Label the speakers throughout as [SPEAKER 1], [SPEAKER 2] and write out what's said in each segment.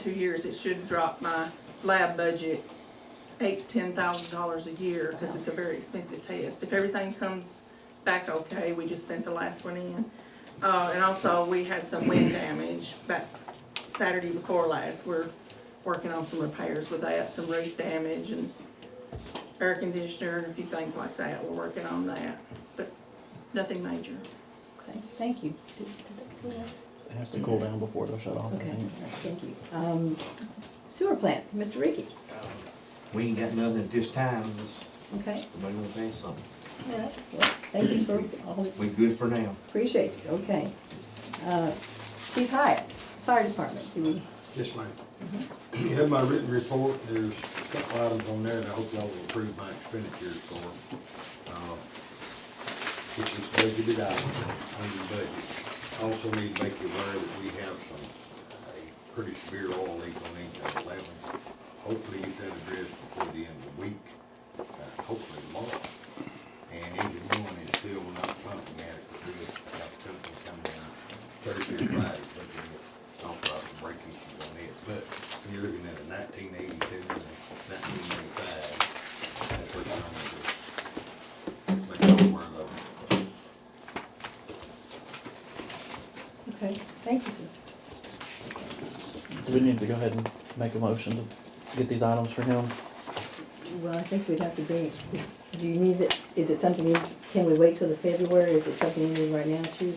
[SPEAKER 1] two years, it should drop my lab budget eight, ten thousand dollars a year, cause it's a very expensive test. If everything comes back okay, we just sent the last one in. Uh, and also, we had some wind damage back Saturday before last, we're working on some repairs with that, some roof damage and air conditioner and a few things like that, we're working on that, but nothing major.
[SPEAKER 2] Okay, thank you. Did- did that clear up?
[SPEAKER 3] It has to cool down before they'll shut off. I
[SPEAKER 2] Okay,
[SPEAKER 3] think.
[SPEAKER 2] thank you. Um, Sewer plant, Mr. Ricky,
[SPEAKER 4] We ain't got nothing at this time, unless
[SPEAKER 2] okay?
[SPEAKER 4] somebody gonna say something.
[SPEAKER 2] All right. Well, Thank you for all,
[SPEAKER 4] We good for now.
[SPEAKER 2] appreciate you, okay. Uh, Chief Hyatt, Fire Department, do we,
[SPEAKER 5] Yes, ma'am. You have my written report, there's a couple items on there that I hope y'all will approve my expenditures for, uh, which is budgeted out under budget. I Also need to make you aware that we have some, a pretty severe oil leak on Engine eleven. Hopefully get that addressed before the end of the week, uh, hopefully tomorrow. And Engine one is still not pumping adequately, I got a company coming in Thursday, or Friday, looking at all sorts of brake issues on it, but when you're looking at a nineteen eighty-two, nineteen eighty-five, that's what I'm gonna do. Make sure we're level.
[SPEAKER 2] okay, thank you, sir.
[SPEAKER 3] Do we need to go ahead and make a motion to get these items for him?
[SPEAKER 2] Well, I think we'd have to bring, do you need it, is it something, you- can we wait till the February, is it something you need right now, Chief?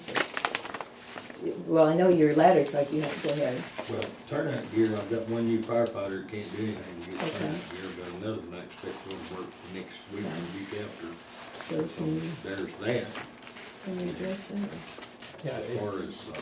[SPEAKER 2] Well, I know your letters, like you have to go ahead,
[SPEAKER 5] Well, turnout gear, I've got one new firefighter that can't do anything to get
[SPEAKER 2] Okay.
[SPEAKER 5] turnout gear, but another one I expect will work next week or the week after.
[SPEAKER 2] so
[SPEAKER 5] So
[SPEAKER 2] can you,
[SPEAKER 5] there's that.
[SPEAKER 2] can you address that?
[SPEAKER 5] As far as, uh,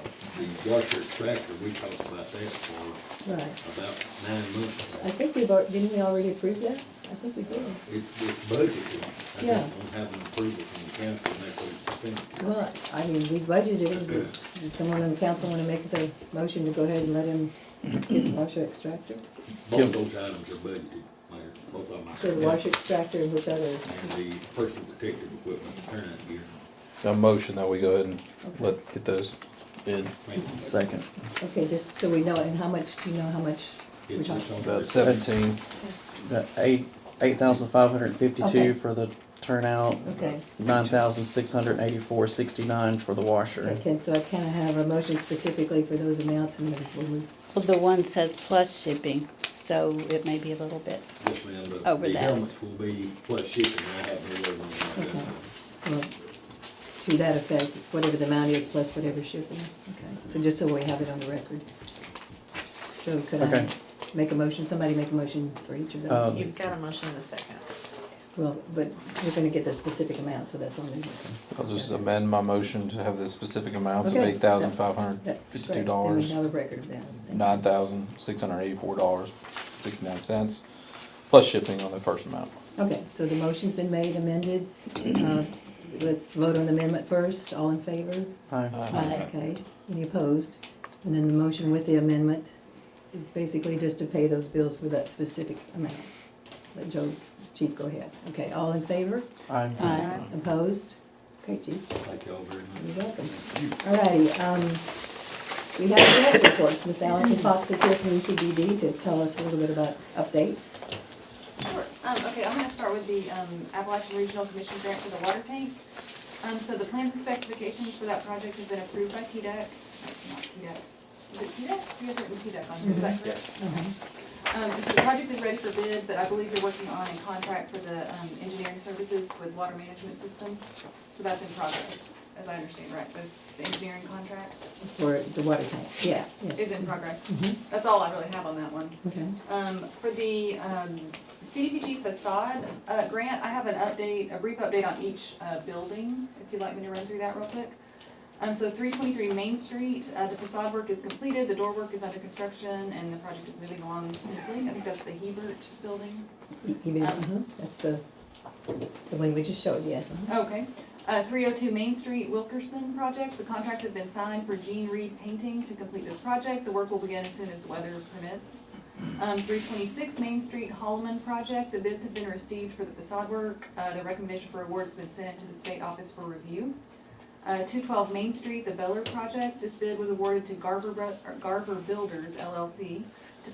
[SPEAKER 5] the washer tractor, we talked about that for
[SPEAKER 2] Right,
[SPEAKER 5] about nine months. ago.
[SPEAKER 2] I think we've, al- didn't we already approve that? I think we did.
[SPEAKER 5] It, it's budgeted. I
[SPEAKER 2] Yeah.
[SPEAKER 5] just don't have an approval from the council, and that's what it's been.
[SPEAKER 2] Well, I mean, we budgeted, is it, does someone on the council wanna make the motion to go ahead and let him get the washer extractor?
[SPEAKER 5] Both of those items are budgeted, Mayor, both of them.
[SPEAKER 2] So the washer extractor and which other,
[SPEAKER 5] And the personal protective equipment, turnout gear.
[SPEAKER 6] A motion that we go ahead and let, get those bid.
[SPEAKER 5] Thank you.
[SPEAKER 3] Second.
[SPEAKER 2] okay, just so we know, and how much, do you know how much we're
[SPEAKER 5] It's- it's
[SPEAKER 2] talking?
[SPEAKER 5] on
[SPEAKER 6] About
[SPEAKER 5] the-
[SPEAKER 6] seventeen,
[SPEAKER 3] The eight, eight thousand five hundred and
[SPEAKER 2] Okay.
[SPEAKER 3] fifty-two for the turnout,
[SPEAKER 2] Okay,
[SPEAKER 3] nine thousand six hundred and eighty-four sixty-nine for the washer.
[SPEAKER 2] okay, so I kinda have a motion specifically for those amounts and then we'll move.
[SPEAKER 7] Well, the one says plus shipping, so it may be a little bit.
[SPEAKER 5] Yes, ma'am, but
[SPEAKER 7] Over
[SPEAKER 5] the
[SPEAKER 7] that.
[SPEAKER 5] helmets will be plus shipping, I have no other one.
[SPEAKER 2] Okay. Well, uh, To that effect, whatever the amount is plus whatever shipping, okay, so just so we have it on the record. So could I
[SPEAKER 3] Okay.
[SPEAKER 2] make a motion, somebody make a motion for each of those?
[SPEAKER 3] Um,
[SPEAKER 8] You've got a motion in a second.
[SPEAKER 2] Well, but we're gonna get the specific amount, so that's on the,
[SPEAKER 6] I'll just amend my motion to have the specific amounts of
[SPEAKER 2] Okay.
[SPEAKER 6] eight thousand five hundred
[SPEAKER 2] that's correct.
[SPEAKER 6] fifty-two
[SPEAKER 2] And we
[SPEAKER 6] dollars,
[SPEAKER 2] have a record of that. Thank you.
[SPEAKER 6] nine thousand six hundred eighty-four dollars, sixty-nine cents, plus shipping on the first amount.
[SPEAKER 2] Okay, so the motion's been made, amended. Uh, Let's vote on the amendment first, all in favor?
[SPEAKER 3] Aye.
[SPEAKER 7] Aye.
[SPEAKER 2] Okay, any opposed? And then the motion with the amendment is basically just to pay those bills for that specific amount. Let Joe, Chief, go ahead. Okay, all in favor?
[SPEAKER 3] Aye.
[SPEAKER 7] Aye.
[SPEAKER 2] Opposed? Okay, Chief,
[SPEAKER 5] Thank y'all very
[SPEAKER 2] you're
[SPEAKER 5] much.
[SPEAKER 2] welcome.
[SPEAKER 5] Thank you.
[SPEAKER 2] All righty, um, we have the health reports. Miss Allison Fox is here from UCBD to tell us a little bit about update.
[SPEAKER 9] Sure. Um, okay, I'm gonna start with the, um, Appalachian Regional Commission grant for the water tank. Um, so the plans and specifications for that project have been approved by TDEC, not TDEC, is it E TDEC? You have written TDEC on here, is that correct? Um, so the project is ready for bid, but I believe they're working on a contract for the, um, engineering services with water management systems. So that's in progress, as I understand, right, the, the engineering contract
[SPEAKER 2] For the water tank, yes, yes.
[SPEAKER 9] is in progress. That's all I really have on that one.
[SPEAKER 2] Okay,
[SPEAKER 9] Um, for the, um, CDPG facade, uh, grant, I have an update, a brief update on each, uh, building, if you'd like me to run through that real quick. Um, so three twenty-three Main Street, uh, the facade work is completed, the door work is under construction, and the project is moving along smoothly. I think that's the Hebert building.
[SPEAKER 2] E- email, uh-huh, that's the, the one we just showed, yes. uh-huh.
[SPEAKER 9] Okay. Uh, three oh two Main Street Wilkerson project, the contracts have been signed for Gene Reed Painting to complete this project. The work will begin as soon as the weather permits. Um, three twenty-six Main Street Holloman project, the bids have been received for the facade work. Uh, the recommendation for award's been sent to the state office for review. Uh, two twelve Main Street, the Beller project, this bid was awarded to Garver, Bro- or Garver Builders LLC.